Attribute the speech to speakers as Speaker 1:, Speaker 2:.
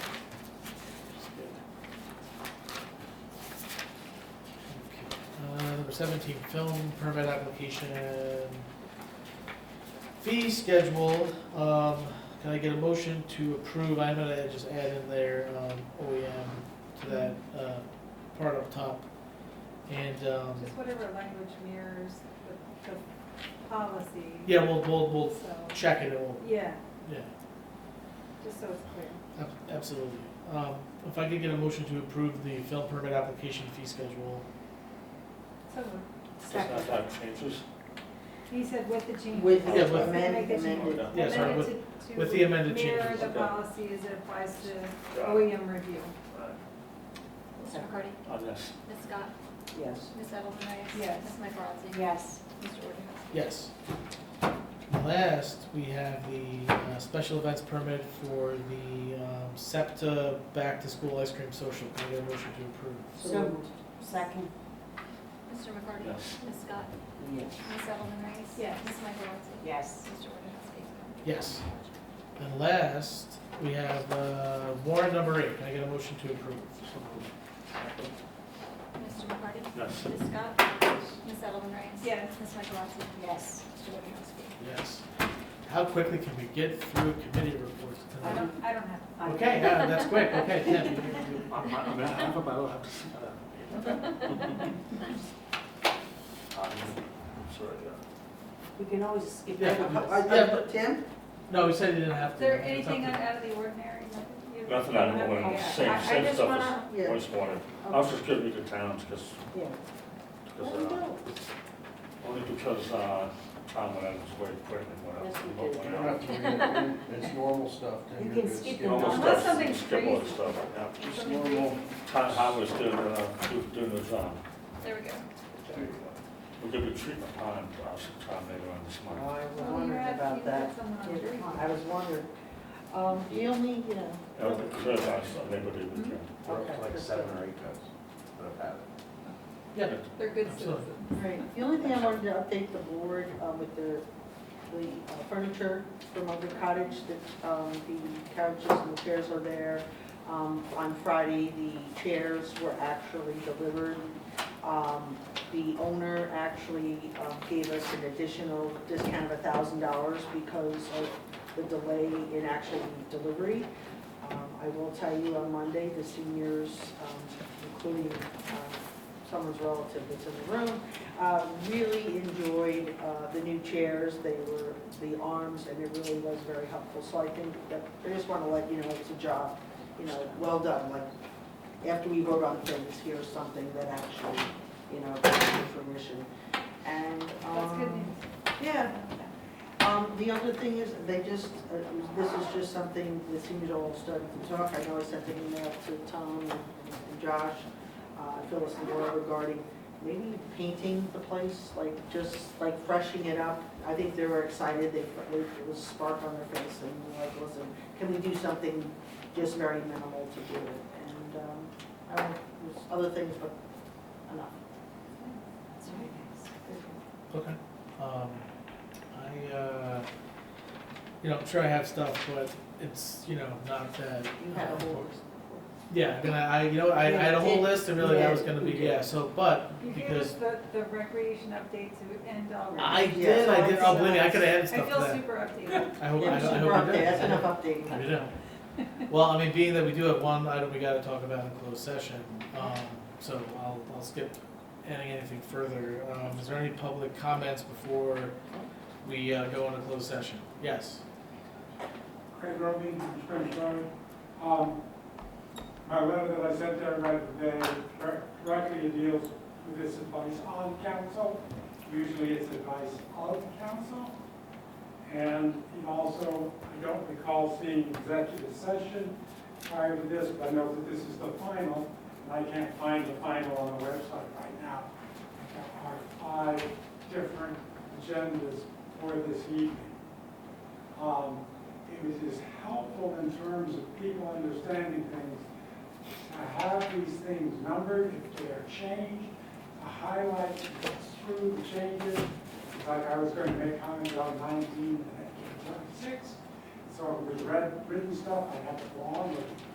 Speaker 1: uh, seventeen film permit application. Fee schedule, um, can I get a motion to approve, I'm gonna just add in there, um, OEM to that, uh, part up top. And, um,
Speaker 2: Just whatever language mirrors the, the policy.
Speaker 1: yeah, we'll, we'll, we'll
Speaker 2: So,
Speaker 1: check it, and we'll,
Speaker 2: yeah,
Speaker 1: yeah,
Speaker 2: just so it's clear.
Speaker 1: ab- absolutely. Um, if I could get a motion to approve the film permit application fee schedule,
Speaker 2: So, moved.
Speaker 3: Does not have changes?
Speaker 2: he said with the change.
Speaker 4: With
Speaker 1: Yeah, with-
Speaker 4: amend-
Speaker 2: Make the change.
Speaker 4: amended.
Speaker 1: Yeah, sorry, with-
Speaker 2: Amended to-
Speaker 1: with the amended
Speaker 2: Mirror
Speaker 1: changes.
Speaker 2: the
Speaker 3: Okay.
Speaker 2: policy as it applies to
Speaker 3: Got it.
Speaker 2: OEM review.
Speaker 5: Mr. McCarty?
Speaker 3: On this,
Speaker 5: Ms. Scott?
Speaker 4: Yes.
Speaker 5: Ms. Edelman Reyes?
Speaker 2: Yes.
Speaker 5: Ms. Mike Rosati?
Speaker 4: Yes.
Speaker 5: Mr. Wojciechowski?
Speaker 1: yes. Last, we have the, uh, special events permit for the, um, SEPTA Back to School Ice Cream Social, can I get a motion to approve?
Speaker 4: So moved. Second.
Speaker 5: Mr. McCarty?
Speaker 3: Yes.
Speaker 5: Ms. Scott?
Speaker 4: Yes.
Speaker 5: Ms. Edelman Reyes?
Speaker 2: Yes.
Speaker 5: Ms. Mike Rosati?
Speaker 4: Yes.
Speaker 5: Mr. Wojciechowski?
Speaker 1: Yes. And last, we have uh, warrant number eight. Can I get a motion to approve?
Speaker 5: Mr. McCarty?
Speaker 3: yes,
Speaker 5: Ms. Scott? Ms. Edelman Reyes?
Speaker 2: Yes.
Speaker 5: Ms. Mike Rosati?
Speaker 4: Yes.
Speaker 5: Mr. Wojciechowski?
Speaker 1: Yes. How quickly can we get through committee reports
Speaker 2: I
Speaker 1: tonight?
Speaker 2: don't, I don't have.
Speaker 1: Okay, yeah, that's quick. Okay, Tim.
Speaker 3: I'm, I'm, I'm gonna have them, I don't have to see that. I'm sorry, yeah.
Speaker 4: We can always skip
Speaker 1: Yeah,
Speaker 4: that.
Speaker 1: yeah, but-
Speaker 4: uh, Tim?
Speaker 1: No, he said he didn't have to.
Speaker 2: Is there
Speaker 1: It's up
Speaker 2: anything
Speaker 1: to-
Speaker 2: out of the ordinary? Nothing you-
Speaker 3: Nothing out of the
Speaker 2: Okay,
Speaker 3: ordinary.
Speaker 2: yeah.
Speaker 3: Same-
Speaker 2: I- I
Speaker 3: same
Speaker 2: just
Speaker 3: stuff
Speaker 2: wanna-
Speaker 3: as-
Speaker 4: Yeah.
Speaker 3: Always wanted, I was just giving you the towns, because,
Speaker 4: Yeah.
Speaker 2: Oh,
Speaker 3: because, uh, only because, uh, Tom went out of his way to quit and went
Speaker 4: Yes,
Speaker 3: out.
Speaker 4: we
Speaker 3: went
Speaker 4: did.
Speaker 3: out.
Speaker 6: It's normal stuff.
Speaker 4: You
Speaker 6: You're
Speaker 4: can
Speaker 6: good.
Speaker 4: skip
Speaker 3: You
Speaker 4: it.
Speaker 3: know,
Speaker 4: Unless
Speaker 3: most stuff,
Speaker 2: something's
Speaker 3: skip all the
Speaker 2: crazy.
Speaker 3: stuff, yeah.
Speaker 6: Just
Speaker 2: Something
Speaker 6: normal.
Speaker 3: Tom Howard's doing, uh, do- doing his, um,
Speaker 5: There we go.
Speaker 3: we'll give you treatment time, uh, sometime later on this
Speaker 4: Oh,
Speaker 3: month.
Speaker 4: I was
Speaker 2: Well, you
Speaker 4: wondering
Speaker 2: had-
Speaker 4: about
Speaker 2: you had
Speaker 4: that.
Speaker 2: someone on
Speaker 4: Yeah,
Speaker 2: jury.
Speaker 4: I was wondering. Um, the only, you know.
Speaker 3: Yeah, because I was unable to do it.
Speaker 4: Okay.
Speaker 6: Like seven or eight times that I've had it.
Speaker 1: Yeah,
Speaker 2: They're good
Speaker 1: Absolutely.
Speaker 2: citizens.
Speaker 4: Right, the only thing I wanted to update the board uh, with the, the uh, furniture from Ogre Cottage, that um, the couches and the chairs are there. Um, On Friday, the chairs were actually delivered. Um, The owner actually uh, gave us an additional discount of a thousand dollars because of the delay in actual delivery. Um, I will tell you, on Monday, the seniors, um, including uh, someone's relative that's in the room, uh, really enjoyed uh, the new chairs, they were, the arms, and it really was very helpful. So I think that, I just want to let you know, it's a job, you know, well done, like, after we vote on things, here's something that actually, you know, comes to fruition. And,
Speaker 2: That's good
Speaker 4: um,
Speaker 2: news.
Speaker 4: yeah, um, the other thing is, they just, uh, this is just something that seems all starting to talk. I know I sent an email to Tom and and Josh, uh, Phyllis and Laura regarding maybe painting the place, like, just like freshening it up. I think they were excited, they, fr- it was a spark on their face, and we're like, listen, can we do something just very minimal to do it? And, um, I don't, know, there's other things, but enough.
Speaker 2: That's right.
Speaker 1: okay. Um, I, uh, you know, I'm sure I have stuff, but it's, you know, not that.
Speaker 4: You had a whole.
Speaker 1: Yeah, I mean, I, you know, I I had a whole list and really that was gonna be, yeah, so, but,
Speaker 2: You gave us
Speaker 1: because
Speaker 2: the, the recreation update to end all.
Speaker 1: I
Speaker 2: right.
Speaker 1: did, I did, oh, believe me, I could have added
Speaker 2: I
Speaker 1: stuff to
Speaker 2: feel
Speaker 1: that.
Speaker 2: super updated.
Speaker 1: I hope, I
Speaker 4: Yeah,
Speaker 1: I
Speaker 4: super
Speaker 1: hope I
Speaker 4: update,
Speaker 1: did.
Speaker 4: that's enough updating.
Speaker 1: We don't. Well, I mean, being that we do have one item we gotta talk about in closed session, um, so I'll, I'll skip adding anything further. Um, is there any public comments before we, uh, go into closed session? Yes?
Speaker 7: Craig Roby, from Spring Garden. Um, my letter that I sent to everybody today directly deals with this advice on council. Usually it's advice of council. And it also, I don't recall seeing executive session prior to this, but I know that this is the final, and I can't find the final on the website right now. There are five different agendas for this evening. Um, it was just helpful in terms of people understanding things, to have these things numbered, if they are changed, to highlight what's true, the changes. It's Like I was going to make comments on nineteen and that came to twenty-six, so it was read, written stuff, I had to go on with it.